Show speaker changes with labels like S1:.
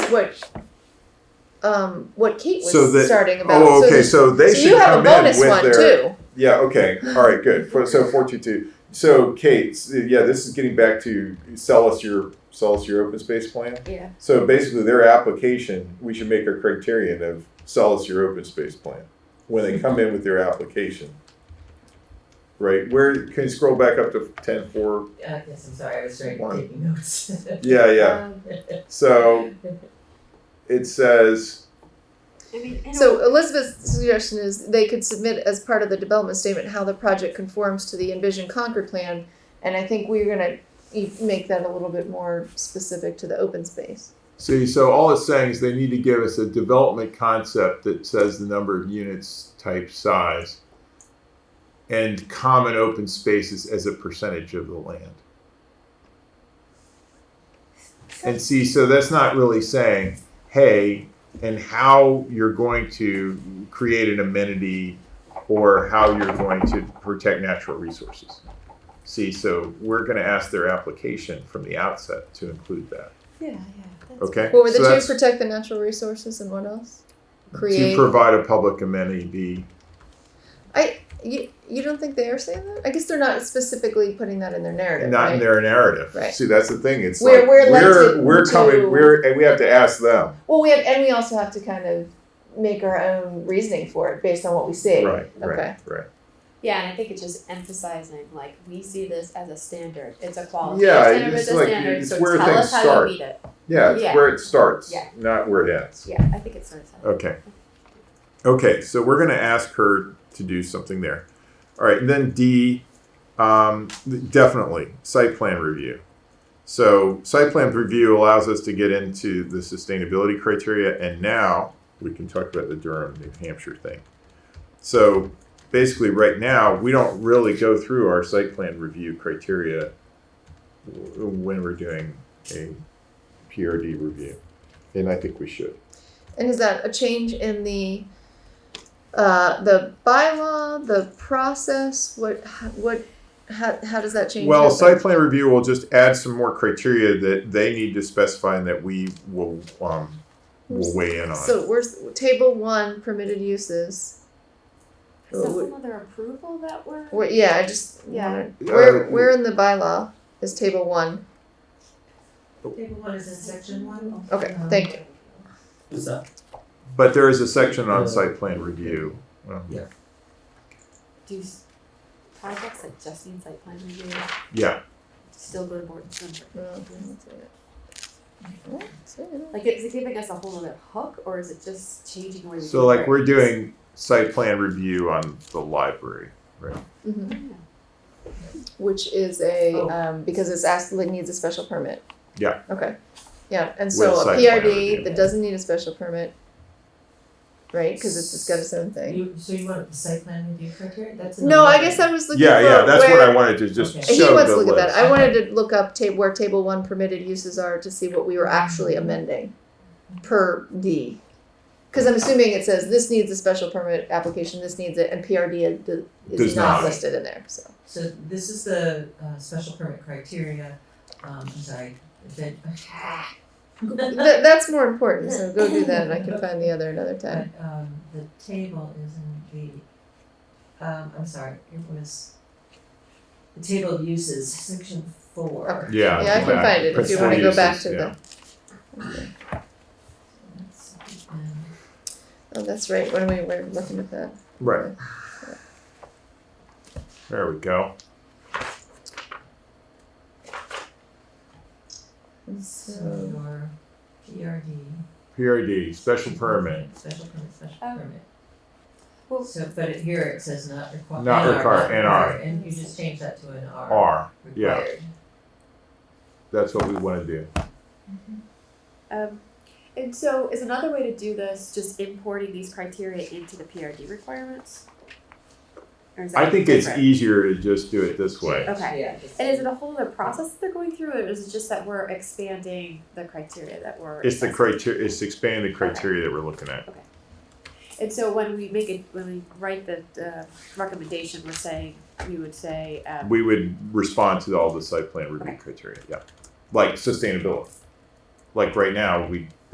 S1: what um what Kate was
S2: So that-
S1: starting about.
S2: Oh, okay.
S1: the-
S2: So they
S1: so
S2: should
S1: you have a
S2: come in
S1: bonus
S2: with
S1: one
S2: their.
S1: too.
S2: Yeah. Okay. All right. Good. For, so four two two. So Kate. s- Yeah. This is getting back to sell us your sell us your open space plan.
S3: Yeah.
S2: So basically, their application, we should make a criterion of sell us your open space plan when they come in with their application. Right. Where can you scroll back up to ten four?
S4: Uh, yes, I'm sorry, I was trying
S2: One.
S4: to take notes.
S2: Yeah. Yeah.
S1: Um,
S2: So it says.
S3: I mean, I don't-
S1: so Elizabeth's suggestion is they could submit as part of the development statement how the project conforms to the envisioned Concord plan, and I think we're gonna e- make that a little bit more specific to the open space.
S5: See, so all it's saying is they need to give us a development concept that says the number of units, type, size, and common open spaces as a percentage of the land. And see, so that's not really saying, hey, and how you're going to create an amenity or how you're going to protect natural resources. See, so we're going to ask their application from the outset to include that.
S1: Yeah, yeah.
S5: Okay.
S1: What were the
S5: So
S1: two
S5: that's-
S1: protect the natural resources and what else?
S5: to
S1: Create.
S5: provide a public amenity be
S1: you, you don't think they are saying that? I guess they're not specifically putting that in their narrative.
S5: not
S1: right?
S5: in their narrative.
S1: Right.
S2: See, that's the thing. It's
S1: We're-
S2: like
S1: we're led
S2: we're,
S1: to-
S2: we're
S1: to-
S2: coming. We're and we have to ask them.
S1: Well, we have, and we also have to kind of make our own reasoning for it based on what we see.
S5: Right, right,
S1: Okay.
S5: right.
S3: yeah, and I think it's just emphasizing like we see this as a standard. It's a quality.
S2: Yeah,
S3: standard,
S2: it's
S3: it's a
S2: like-
S3: standard.
S2: it's
S3: so
S2: where
S3: tell
S2: things
S3: us how
S2: start.
S3: you meet it.
S2: Yeah, it's
S3: Yeah.
S2: where it starts,
S3: Yeah.
S2: not where it ends.
S3: Yeah, I think it starts. out.
S5: Okay. Okay, so we're going to ask her to do something there. All right, and then D, um, definitely site plan review. So site plan review allows us to get into the sustainability criteria, and now we can talk about the Durham, New Hampshire thing. So basically, right now we don't really go through our site plan review criteria w- when we're doing a PRD review, and I think we should.
S1: And is that a change in the uh, the bylaw, the process? What what how, how does that change?
S5: Well,
S1: happen?
S5: site plan review will just add some more criteria that they need to specify and that we will, um, will weigh in on.
S1: So where's table one permitted uses?
S3: Is that
S1: Well,
S3: some other approval that we're?
S1: Where, yeah, I just
S3: Yeah.
S1: wanted-
S5: Uh,
S1: where where in the bylaw is table one?
S4: Table one is in section one. Um,
S1: Okay, thank you.
S6: What's that?
S5: But there is a section on site plan review. Um,
S6: Yeah.
S3: Do s- projects that just need site plan review
S5: Yeah,
S3: still go to board and center?
S1: No, I didn't see it. I didn't see it.
S3: Like, is it giving us a whole other hook, or is it just changing where we?
S5: so
S3: do
S5: like we're
S3: work?
S5: doing site plan review on the library, right?
S1: Mhm.
S3: Yeah.
S1: Which is a,
S4: Oh.
S1: um, because it's asked, it needs a special permit.
S5: Yeah.
S1: Okay, yeah, and
S5: With
S1: so a
S5: site plan
S1: PRD
S5: review.
S1: that doesn't need a special permit. Right, cause it's, it's got its own thing.
S4: You, so you want the site plan review criteria? That's
S1: No, I
S4: another-
S1: guess I was looking for
S5: Yeah, yeah, that's what I
S1: where,
S5: wanted to just
S4: Okay.
S1: he
S5: show
S1: wants to
S5: the
S1: look at that,
S5: list.
S1: I wanted to look up ta- where table one permitted uses are to see what we were actually amending per D. Cause I'm assuming it says this needs a special permit application, this needs it, and PRD is- is
S5: Does
S1: not
S5: not.
S1: listed in there, so.
S4: So this is the uh special permit criteria, um I'm sorry, that.
S1: Th- that's more important, so go do that and I can find the other another time.
S4: But um the table is in the, um I'm sorry, it was the table of uses, section four.
S1: Okay. Yeah,
S5: Yeah.
S1: I can
S5: exactly.
S1: find it if you
S5: Principal
S1: wanna go back
S5: uses,
S1: to
S5: yeah.
S1: the,
S4: That's, um,
S1: oh, that's right, when we were looking at that.
S5: Right. There we go.
S1: And
S4: So
S1: So,
S4: your PRD.
S5: PRD, special permit,
S4: Special permit, special
S3: Oh.
S4: permit.
S3: Well-
S4: So, but it, here it says not required.
S5: Not require- NR.
S4: And you just change that to an R.
S5: R, yeah.
S4: Required.
S5: that's what we wanna do.
S3: Um, and so is another way to do this just importing these criteria into the PRD requirements? Or is that
S5: I think it's e-
S3: different?
S5: easier to just do it this way.
S3: Okay.
S4: Yeah.
S3: And is it a whole other process that they're going through, or is it just that we're expanding the criteria that we're?
S5: It's the
S3: assessing?
S5: criteria, it's expanding the criteria that we're looking at.
S3: And so when we make it, when we write the, the recommendation, we're saying, we would say, um,
S5: We would respond to all the site plan review
S3: Okay.
S5: criteria, yeah. Like sustainability. Like right now, we